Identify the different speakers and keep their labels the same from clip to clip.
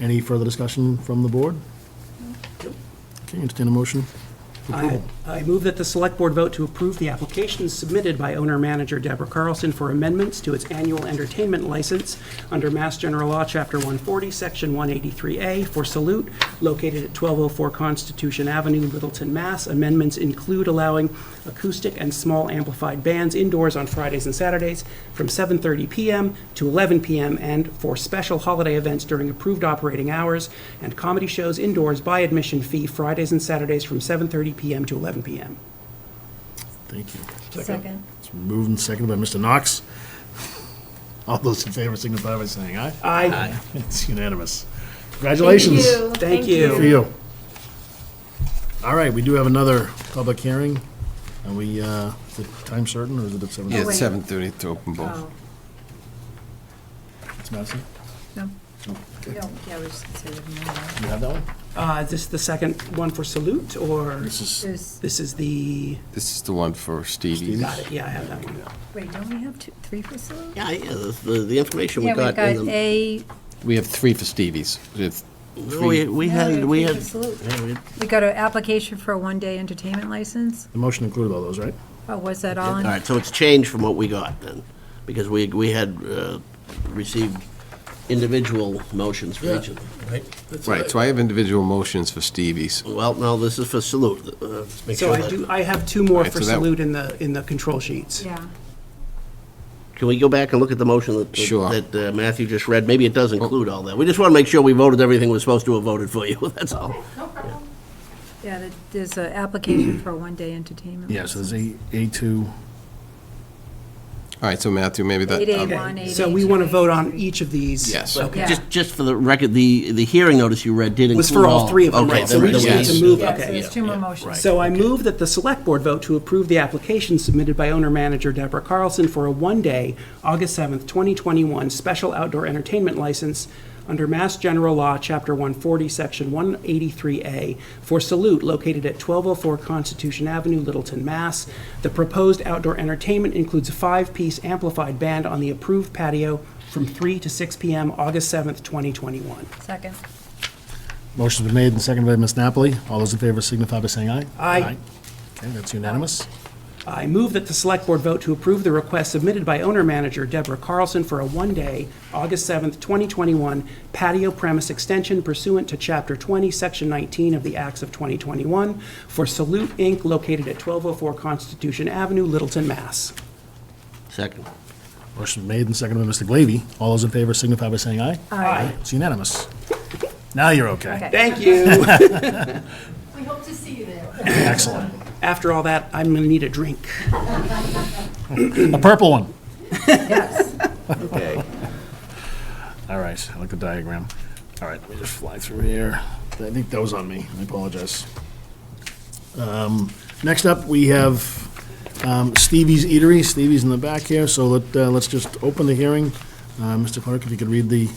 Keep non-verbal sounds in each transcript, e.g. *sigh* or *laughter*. Speaker 1: Any further discussion from the board? Okay, entertain a motion. for
Speaker 2: I
Speaker 1: approval.
Speaker 2: I move that the Select Board vote to approve the application submitted by owner-manager Deborah Carlson for amendments to its annual entertainment license under Mass General Law, Chapter 140, Section 183A, for Salute, located at 1204 Constitution Avenue, Littleton, Mass. Amendments include allowing acoustic and small amplified bands indoors on Fridays and Saturdays from 7:30 PM to 11 PM, and for special holiday events during approved operating hours, and comedy shows indoors by admission fee Fridays and Saturdays from 7:30 PM to 11 PM.
Speaker 1: Thank you.
Speaker 3: Second.
Speaker 1: It's moved and seconded by Mr. Knox. All those in favor signify by saying aye. *laughs*
Speaker 2: I,
Speaker 1: It's unanimous. Congratulations.
Speaker 2: Thank you.
Speaker 1: For you. All right, we do have another public hearing, and we, uh, is it time certain, or is it at seven?
Speaker 4: Yeah,
Speaker 3: Oh, wait.
Speaker 4: it's seven thirty to open both.
Speaker 3: Oh,
Speaker 1: It's Madison?
Speaker 3: no.
Speaker 1: No.
Speaker 3: We don't, yeah, we just considered them all.
Speaker 1: You have that one?
Speaker 2: Uh, This is the second one for Salute, or
Speaker 1: This is,
Speaker 3: There's,
Speaker 2: this is the,
Speaker 4: This is the one for Stevie's.
Speaker 2: got it, yeah, I have that one.
Speaker 3: wait, don't we have two, three for sale?
Speaker 5: Yeah, yeah, the- the, the information we
Speaker 3: Yeah,
Speaker 5: got in
Speaker 3: we've got
Speaker 5: the,
Speaker 3: A,
Speaker 4: We have three for Stevie's. We have
Speaker 5: no, we,
Speaker 4: three.
Speaker 5: we
Speaker 3: No,
Speaker 5: had,
Speaker 3: you're
Speaker 5: we had,
Speaker 3: thinking salute.
Speaker 5: yeah, we-
Speaker 3: we got an application for a one-day entertainment license.
Speaker 1: the motion included all those, right?
Speaker 3: Oh, was that all
Speaker 5: all
Speaker 3: in?
Speaker 5: right, so it's changed from what we got then, because we, we had uh, received individual motions for each of them.
Speaker 4: Right, so I have individual motions for Stevie's.
Speaker 5: Well, no, this is for salute. uh, let's make
Speaker 2: So
Speaker 5: sure
Speaker 2: I
Speaker 5: that-
Speaker 2: do, I have two more
Speaker 4: Right,
Speaker 2: for
Speaker 4: so that-
Speaker 2: Salute in the, in the control sheets.
Speaker 3: Yeah,
Speaker 5: Can we go back and look at the motion that,
Speaker 4: Sure.
Speaker 5: that uh, Matthew just read? Maybe it does include all that. We just want to make sure we voted everything we're supposed to have voted for you, *laughs* that's all.
Speaker 3: yeah, there- there's an application for a one-day entertainment.
Speaker 1: Yeah, so there's A, A2.
Speaker 4: All right, so Matthew, maybe that.
Speaker 3: Eight A
Speaker 4: um,
Speaker 3: one, eight A two.
Speaker 2: So we want to vote on each of these.
Speaker 4: Yes.
Speaker 2: Okay.
Speaker 3: Yeah.
Speaker 5: Just, just for the record, the, the hearing notice you read did include all.
Speaker 2: Was for all three of them,
Speaker 5: Okay,
Speaker 2: right? So
Speaker 5: then
Speaker 2: we just
Speaker 5: then
Speaker 2: need to
Speaker 5: yes.
Speaker 2: move,
Speaker 3: Yeah,
Speaker 2: okay.
Speaker 3: so there's two more motions.
Speaker 2: So I move that the Select Board vote to approve the application submitted by owner-manager Deborah Carlson for a one-day, August 7th, 2021, special outdoor entertainment license under Mass General Law, Chapter 140, Section 183A, for Salute, located at 1204 Constitution Avenue, Littleton, Mass. The proposed outdoor entertainment includes a five-piece amplified band on the approved patio from 3 to 6 p.m., August 7th, 2021.
Speaker 3: Second,
Speaker 1: Motion's been made and seconded by Ms. Napoli. All those in favor signify by saying aye.
Speaker 2: Aye.
Speaker 1: Okay, that's unanimous.
Speaker 2: I move that the Select Board vote to approve the request submitted by owner-manager Deborah Carlson for a one-day, August 7th, 2021 patio premise extension pursuant to Chapter 20, Section 19 of the Acts of 2021 for Salute, Inc., located at 1204 Constitution Avenue, Littleton, Mass.
Speaker 5: Second.
Speaker 1: Motion made and seconded by Mr. Glavy. All those in favor signify by saying aye. Aye. It's unanimous. Now you're okay.
Speaker 3: Okay.
Speaker 2: Thank you.
Speaker 6: We hope to see you there.
Speaker 1: Excellent.
Speaker 2: *laughs* After all that, I'm going to need a drink.
Speaker 1: A purple one. *laughs*
Speaker 3: yes.
Speaker 5: Okay.
Speaker 1: All right, I like the diagram. All right, let me just fly through here. I think that was on me. I apologize. Um, Next up, we have um, Stevie's Eatery. Stevie's in the back here, so let, uh, let's just open the hearing. Uh, Mr. Clerk, if you could read the,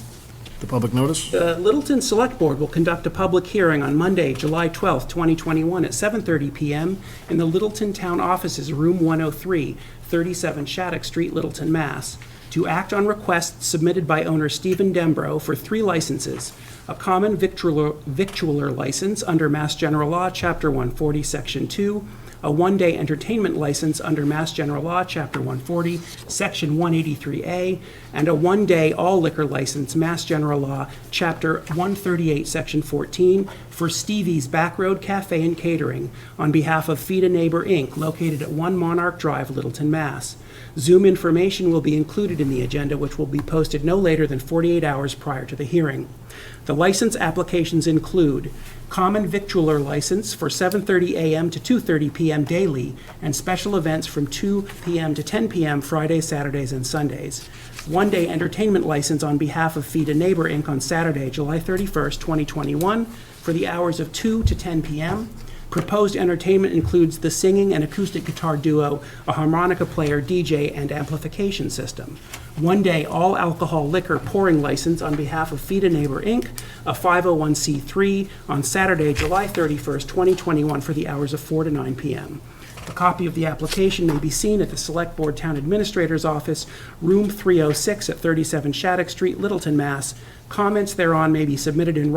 Speaker 1: the public notice.
Speaker 2: The Littleton Select Board will conduct a public hearing on Monday, July 12th, 2021, at 7:30 PM in the Littleton Town Offices, Room 103, 37 Shattuck Street, Littleton, Mass., to act on requests submitted by owner Stephen Dembro for three licenses: a common victualler victualler license under Mass General Law, Chapter 140, Section 2, a one-day entertainment license under Mass General Law, Chapter 140, Section 183A, and a one-day all liquor license, Mass General Law, Chapter 138, Section 14, for Stevie's Backroad Cafe and Catering on behalf of Feed a Neighbor, Inc., located at 1 Monarch Drive, Littleton, Mass. Zoom information will be included in the agenda, which will be posted no later than 48 hours prior to the hearing. The license applications include common victualler license for 7:30 a.m. to 2:30 p.m. daily, and special events from 2 p.m. to 10 p.m. Fridays, Saturdays, and Sundays. One-day entertainment license on behalf of Feed a Neighbor Inc. on Saturday, July 31st, 2021, for the hours of 2 to 10 p.m. Proposed entertainment includes the singing and acoustic guitar duo, a harmonica player, DJ, and amplification system. One day, all alcohol liquor pouring license on behalf of Feed a Neighbor Inc., a 501c3, on Saturday, July 31st, 2021, for the hours of 4 to 9 p.m. A copy of the application may be seen at the Select Board Town Administrator's Office, oh Room 306 at 37 Shattuck Street, Littleton, Mass. Comments thereon may be submitted in